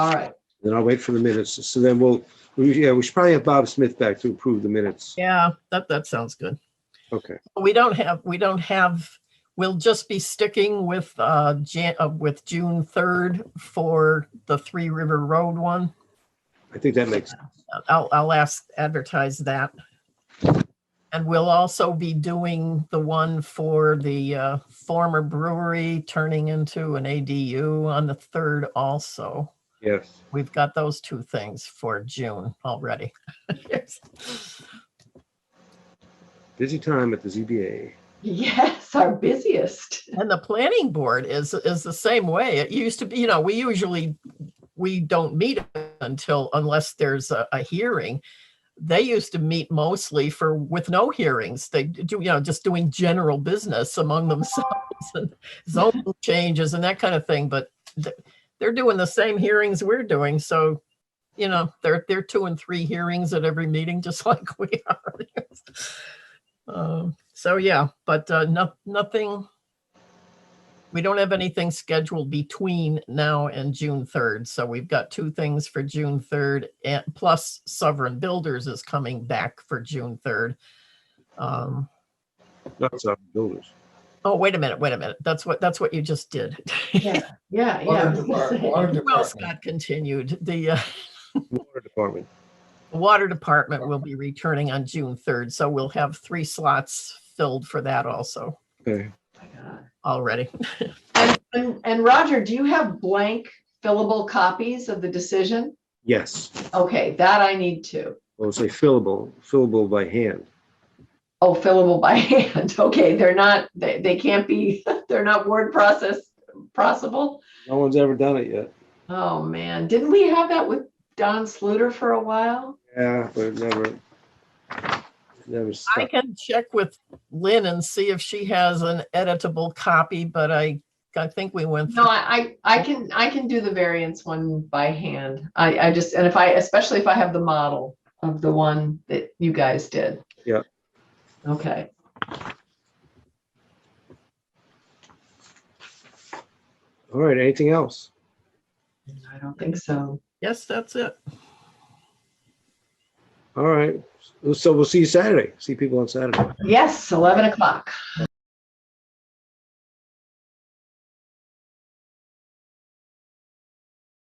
All right, Then I'll wait for the minutes. So then we'll, we, yeah, we should probably have Bob Smith back to approve the minutes. Yeah, that, that sounds good. Okay, We don't have, we don't have, we'll just be sticking with, uh, Jan, uh, with June 3rd for the Three River Road one. I think that makes, I'll, I'll ask, advertise that. And we'll also be doing the one for the, uh, former brewery turning into an ADU on the 3rd also. yes. We've got those two things for June already. Busy time at the ZBA. yes, our busiest. And the planning board is, is the same way. It used to be, you know, we usually, we don't meet until, unless there's a, a hearing. They used to meet mostly for, with no hearings. They do, you know, just doing general business among themselves and zone changes and that kind of thing, but th- they're doing the same hearings we're doing, so, you know, they're, they're two and three hearings at every meeting, just like we are. Um, So, yeah, but, uh, no, nothing, we don't have anything scheduled between now and June 3rd, so we've got two things for June 3rd, and plus Sovereign Builders is coming back for June 3rd. Um, Not South Builders. Oh, wait a minute, wait a minute. That's what, that's what you just did. Yeah, yeah, yeah. I was gonna Water depart- say. water Well, department. Scott continued, the uh, Water Department. Water Department will be returning on June 3rd, so we'll have three slots filled for that also Okay. Oh my God. already. And- And and Roger, do you have blank fillable copies of the decision? Yes. Okay, that I need too. Well, say fillable, fillable by hand. Oh, fillable by hand. Okay, they're not, they, they can't be, they're not word process processable. No one's ever done it yet. Oh, man. Didn't we have that with Don Sluter for a while? Yeah, but it never, it never I stuck. can check with Lynn and see if she has an editable copy, but I, I think we went. No, through- I, I I can, I can do the variance one by hand. I, I just, and if I, especially if I have the model of the one that you guys did. Yeah. Okay. All right, anything else? I don't think so. Yes, that's it. All right. So we'll see you Saturday. See people on Saturday. Yes, 11 o'clock.